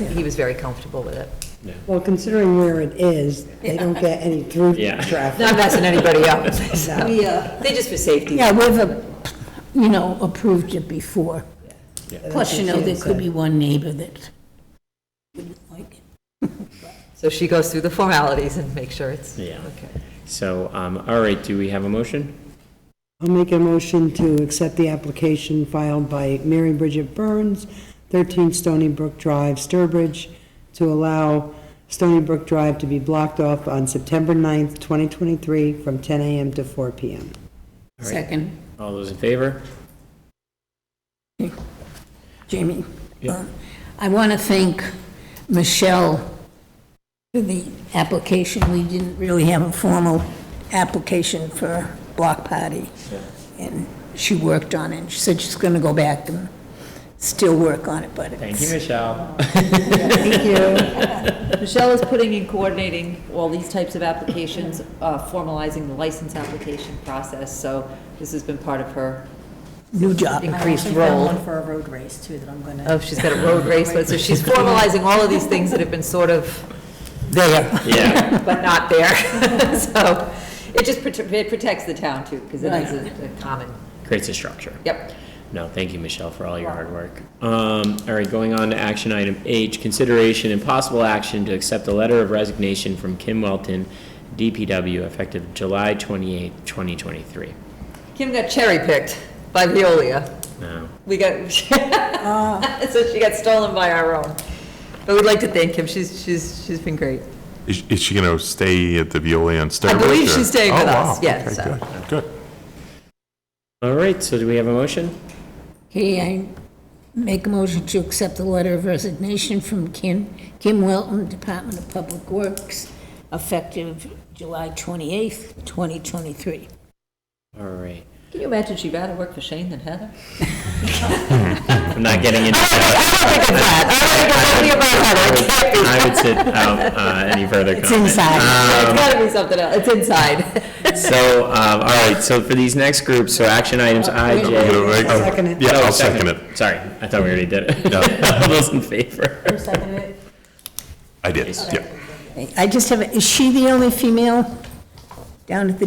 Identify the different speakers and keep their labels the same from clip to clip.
Speaker 1: He was very comfortable with it.
Speaker 2: Well, considering where it is, they don't get any through
Speaker 3: Yeah.
Speaker 2: traffic.
Speaker 1: Not messing anybody up.
Speaker 2: So-
Speaker 1: They just for safety.
Speaker 4: Yeah, we've, uh, you know, approved it before. Plus, you know, there could be one neighbor that wouldn't like it.
Speaker 1: So she goes through the formalities and makes sure it's,
Speaker 3: Yeah.
Speaker 1: okay.
Speaker 3: So, um, all right, do we have a motion?
Speaker 2: I'll make a motion to accept the application filed by Mary Bridget Burns, 13 Stony Brook Drive, Sturbridge, to allow Stony Brook Drive to be blocked off on September 9th, 2023, from 10 a.m. to 4 p.m.
Speaker 3: right.
Speaker 4: Second,
Speaker 3: All those in favor?
Speaker 4: Jamie.
Speaker 3: Yeah.
Speaker 4: Uh, I want to thank Michelle for the application. We didn't really have a formal application for block party. And she worked on it. She said she's going to go back and still work on it, but
Speaker 3: Thank you,
Speaker 4: it's,
Speaker 3: Michelle.
Speaker 1: Thank you. Michelle is putting in coordinating all these types of applications, uh, formalizing the license application process, so this has been part of her
Speaker 4: new job.
Speaker 1: increased
Speaker 5: I also found
Speaker 1: role.
Speaker 5: one for a road race, too, that I'm going to.
Speaker 1: Oh, she's got a road race, but so she's formalizing all of these things that have been sort of there,
Speaker 3: Yeah,
Speaker 1: but not there. So it just prote- it protects the town too, because it is a a common,
Speaker 3: creates a structure.
Speaker 1: yep.
Speaker 3: No, thank you, Michelle, for all your hard work. Um, all right, going on to action item H, consideration and possible action to accept a letter of resignation from Kim Welton, DPW, effective July twenty-eighth, twenty twenty-three.
Speaker 1: Kim got cherry-picked by Veolia.
Speaker 3: Now,
Speaker 1: We got, so she got stolen by our own. But we'd like to thank Kim, she's, she's, she's been great.
Speaker 6: Is, is she going to stay at the Veolia on Sturbridge?
Speaker 1: I believe she's
Speaker 6: or-
Speaker 1: staying
Speaker 6: Oh,
Speaker 1: with
Speaker 6: wow.
Speaker 1: us, yeah,
Speaker 6: Okay,
Speaker 1: so.
Speaker 6: good, Good.
Speaker 3: all right, so do we have a motion?
Speaker 4: Okay, I make a motion to accept the letter of resignation from Kim, Kim Wilton, Department of Public Works, effective July 28th, 2023.
Speaker 3: All right,
Speaker 1: Can you imagine she'd rather work for Shane than Heather?
Speaker 3: I'm not getting into
Speaker 6: Um,
Speaker 3: I would sit out uh, any further comment.
Speaker 1: It's gotta be something else, it's inside.
Speaker 3: So, um, all right, so for these next groups, so action items I,
Speaker 6: I'm gonna
Speaker 3: J.
Speaker 6: make- oh,
Speaker 2: Second it.
Speaker 6: Yeah,
Speaker 3: Oh,
Speaker 6: I'll second it.
Speaker 3: Sorry, I thought we already did it. All those in favor?
Speaker 6: I did, yeah.
Speaker 4: I just have, a- is she the only female down at the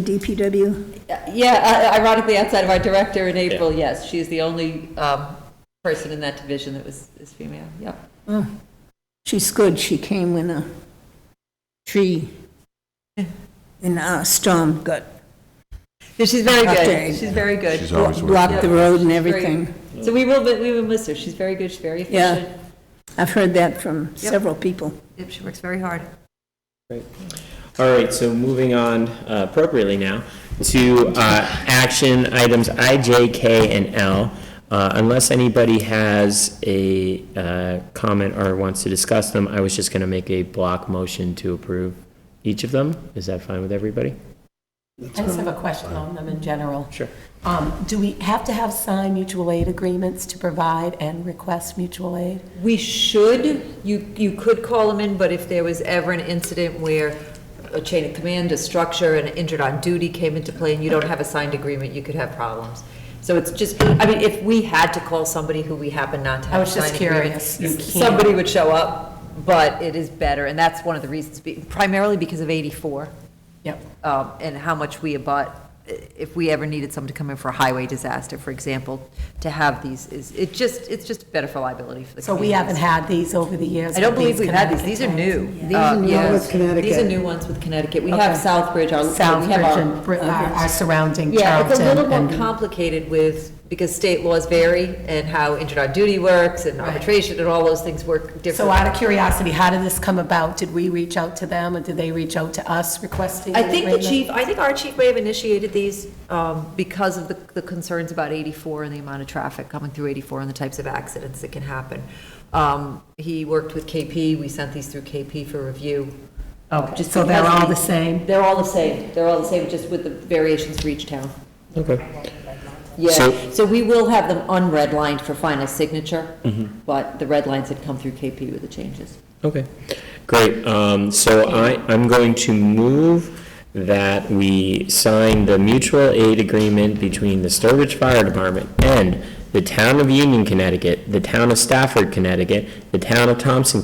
Speaker 4: DPW?
Speaker 1: Yeah, uh, ironically, outside of our director in April, yes, she is the only um, person in that division that was, is female, yep.
Speaker 4: She's good, she came when a tree in a storm got,
Speaker 1: Yeah, She's very
Speaker 4: Okay.
Speaker 1: good, she's very good.
Speaker 6: She's always working.
Speaker 4: blocked the road and everything.
Speaker 1: Very- So we will, we will miss her, she's very good, she's very
Speaker 4: Yeah.
Speaker 1: efficient.
Speaker 4: I've heard that from several people.
Speaker 1: Yep, she works very hard.
Speaker 3: All right, so moving on uh, appropriately now to uh, action items I, J, K, and L. Uh, Unless anybody has a uh, comment or wants to discuss them, I was just going to make a block motion to approve each of them. Is that fine with everybody?
Speaker 5: I just have a question on them in general.
Speaker 3: Sure.
Speaker 5: Um, Do we have to have signed mutual aid agreements to provide and request mutual aid?
Speaker 1: We should, you, you could call them in, but if there was ever an incident where a chain of command, a structure, and an injured on duty came into play, and you don't have a signed agreement, you could have problems. So it's just, I mean, if we had to call somebody who we happen not to
Speaker 5: I
Speaker 1: have a
Speaker 5: was just
Speaker 1: signed agreement,
Speaker 5: curious. You can't.
Speaker 1: somebody would show up, but it is better, and that's one of the reasons, be- primarily because of 84
Speaker 5: Yep.
Speaker 1: um, and how much we abut, if we ever needed someone to come in for a highway disaster, for example, to have these, is, it just, it's just better for liability for the
Speaker 5: So we haven't
Speaker 1: communities.
Speaker 5: had these over the years?
Speaker 1: I don't
Speaker 5: with
Speaker 1: believe we've had these, these are
Speaker 5: Connecticut
Speaker 1: new.
Speaker 5: plans?
Speaker 1: These are
Speaker 2: new ones with Connecticut.
Speaker 1: These are new ones with Connecticut. We
Speaker 5: Okay.
Speaker 1: have Southbridge, our, we have
Speaker 5: Southbridge
Speaker 1: our. uh,
Speaker 5: and Br- our our surrounding
Speaker 1: Yeah, it's a little
Speaker 5: Charlton.
Speaker 1: more
Speaker 5: and-
Speaker 1: complicated with, because state laws vary, and how injured on duty works, and arbitration, and all those things work differently.
Speaker 5: So out of curiosity, how did this come about? Did we reach out to them, or did they reach out to us requesting
Speaker 1: I
Speaker 5: an
Speaker 1: think the
Speaker 5: agreement?
Speaker 1: chief, I think our chief may have initiated these um, because of the the concerns about 84 and the amount of traffic coming through 84 and the types of accidents that can happen. Um, He worked with KP, we sent these through KP for review.
Speaker 5: Oh,
Speaker 1: Just
Speaker 5: so they're
Speaker 1: because
Speaker 5: all the
Speaker 1: we-
Speaker 5: same?
Speaker 1: They're all the same, they're all the same, just with the variations for each town.
Speaker 3: Okay.
Speaker 1: Yeah,
Speaker 3: So-
Speaker 1: so we will have them unredlined for final signature, but the red lines had come through KP with the changes.
Speaker 3: Okay, great. Um, So I, I'm going to move that we sign the mutual aid agreement between the Sturbridge Fire Department and the Town of Union, Connecticut, the Town of Stafford, Connecticut, the Town of Thompson,